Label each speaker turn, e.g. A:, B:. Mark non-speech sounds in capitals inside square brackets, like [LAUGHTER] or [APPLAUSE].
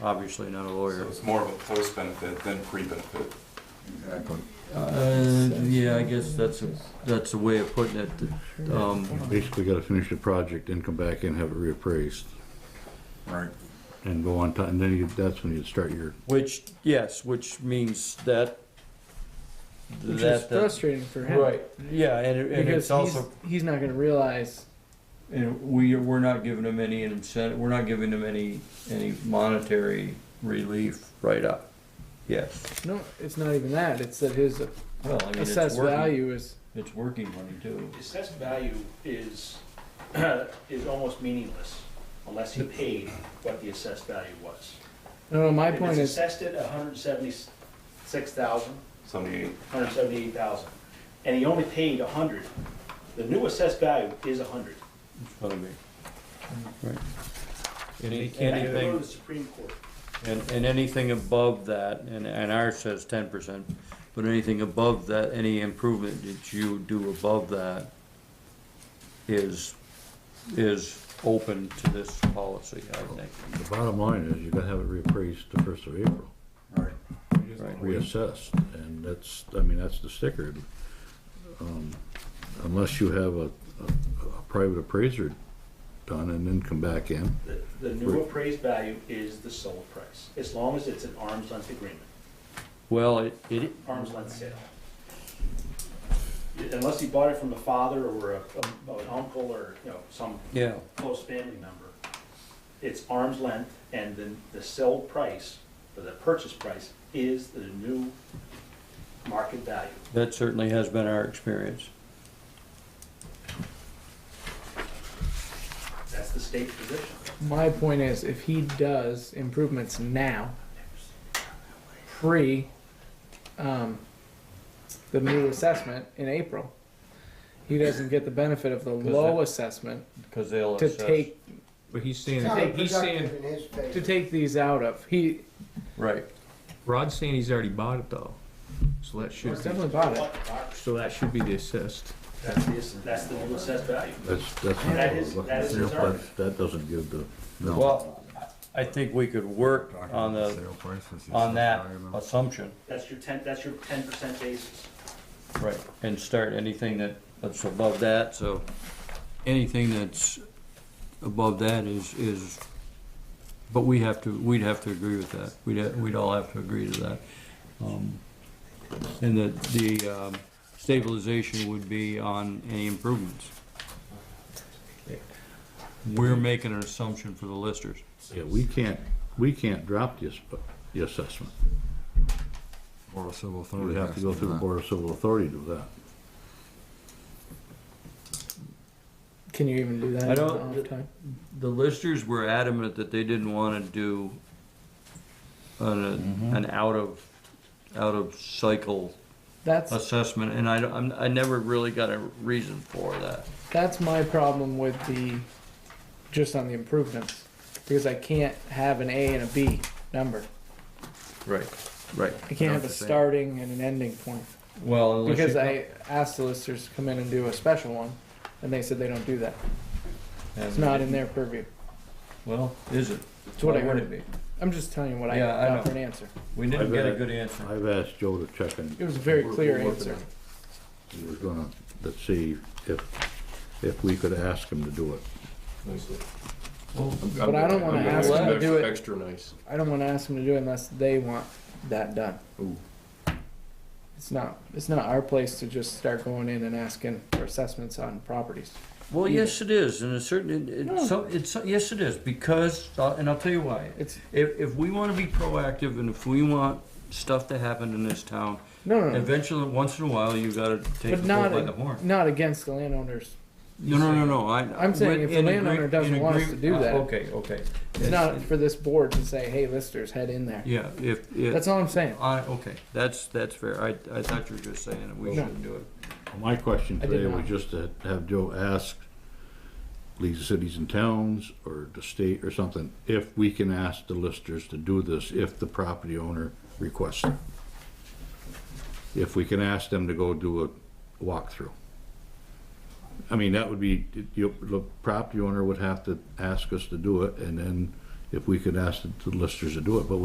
A: obviously not a lawyer.
B: So it's more of a post-benefit than pre-benefit.
C: Exactly.
A: Uh, yeah, I guess that's, a- that's a way of putting it. Um,
D: Basically, gotta finish the project, then come back and have it reappraised,
C: Right.
D: and go on time, and then you, that's when you start your,
A: which, yes, which means that.
E: Which
A: that- uh,
E: is frustrating for him.
A: Right, yeah, and it- and
E: Because
A: it's also,
E: he's, he's not going to realize.
A: and we, we're not giving them any incentive, we're not giving them any, any monetary relief right up. Yes,
E: No, it's not even that. It's that his
A: well, I mean, it's
E: assessed
A: working,
E: value is.
A: it's working money too.
F: Assessed value is, [CLEARS THROAT] is almost meaningless unless he paid what the assessed value was.
E: No, no. My
F: If
E: point
F: it's
E: is,
F: assessed at a hundred and seventy-six thousand,
B: Seventy-eight,
F: hundred and seventy-eight thousand, and he only paid a hundred, the new assessed value is a hundred.
A: What I mean. Right. Any-
F: And I go to
A: Anything,
F: the Supreme Court.
A: and, and anything above that, and, and ours says ten percent, but anything above that, any improvement that you do above that is, is open to this policy, I think.
D: the bottom line is, you gotta have it reappraised the first of April,
C: Right.
D: reassessed, and that's, I mean, that's the sticker. Um, Unless you have a, a, a private appraiser done and then come back in,
F: The, the new appraised value is the sold price, as long as it's an arm's length agreement,
A: Well, it, it,
F: arm's length sale. Unless he bought it from a father or a, a- an uncle or, you know, some
A: yeah,
F: close family member, it's arm's length, and then the sell price, or the purchase price, is the new market value.
A: that certainly has been our experience.
F: That's the state's position.
E: my point is, if he does improvements now, pre, um, the new assessment in April, he doesn't get the benefit of the
A: Because
E: low
A: that-
E: assessment
A: Cause they'll
E: to
A: assess.
E: take
G: But he's saying,
E: To take- he's saying-
G: saying,
E: to take these out of. He
A: Right,
G: Rod's saying he's already bought it though. So that should,
E: he's definitely bought it.
G: so that should be the assist.
F: That's the, that's the new assessed value.
D: that's, that's. not
F: That
D: what
F: is-
D: we're looking
F: that is
D: for.
F: his argument.
D: That- That doesn't give the, no.
A: well, I think we could work on the, on that assumption.
F: That's your ten, that's your ten percent basis.
A: Right, and start anything that, that's above that, so anything that's above that is, is, but we have to, we'd have to agree with that. We'd, ha- we'd all have to agree to that. Um, And that the um, stabilization would be on any improvements. We're making an assumption for the listers.
D: Yeah, we can't, we can't drop the, ass- the assessment.
C: Board of Civil Authority.
D: We have to go through the Board of Civil Authority to do that.
E: Can you even do that?
A: I
E: in
A: don't-
E: an off time?
A: The listers were adamant that they didn't wanna do an, an out of, out of cycle
E: That's
A: assessment, and I don't, I'm- I never really got a reason for that.
E: That's my problem with the, just on the improvements, because I can't have an A and a B number.
A: Right, right.
E: I can't have a starting and an ending point.
A: Well, unless you
E: Because
A: come-
E: I asked the listers to come in and do a special one, and they said they don't do that. It's
A: Yeah,
E: not in their purview.
A: Well, is it?
E: It's what I
A: Why would
E: heard.
A: it be?
E: I'm just telling you what I
A: Yeah, I
E: got for
A: know.
E: an answer.
A: We didn't
D: I've
A: get a
D: had-
A: good answer.
D: I've asked Joe to check and
E: It was a very
D: We're-
E: clear
D: we're working
E: answer.
D: on he was gonna, let's see if, if we could ask him to do it.
E: But I don't wanna ask them to do it.
G: Extra nice.
E: I don't wanna ask them to do it unless they want that done. It's not, it's not our place to just start going in and asking for assessments on properties.
A: Well, yes, it is, and it's certain, it- it's, some- it's, yes, it is, because, uh, and I'll tell you why.
E: It's,
A: If, if we wanna be proactive and if we want stuff to happen in this town,
E: no, no, no.
A: eventually, once in a while, you gotta take
E: But
A: the bull
E: not,
A: by the
E: ag-
A: horn.
E: not against the landowners.
A: No, no, no, no, I.
E: I'm saying if the
A: in agree-
E: landowner doesn't
A: in
E: want us
A: agree-
E: to do
A: uh,
E: that.
A: Okay, okay.
E: It's not for this board to say, hey, listers, head in there.
A: Yeah, if, if,
E: That's all I'm saying.
A: I, okay, that's, that's fair, I, I thought you were just saying that we
E: No.
A: shouldn't do it.
D: My question
E: I did
D: today was
E: not.
D: just to have Joe ask league of cities and towns or the state or something, if we can ask the listers to do this, if the property owner requests it. If we can ask them to go do a walkthrough. I mean, that would be, you, the property owner would have to ask us to do it and then if we could ask the the listers to do it, but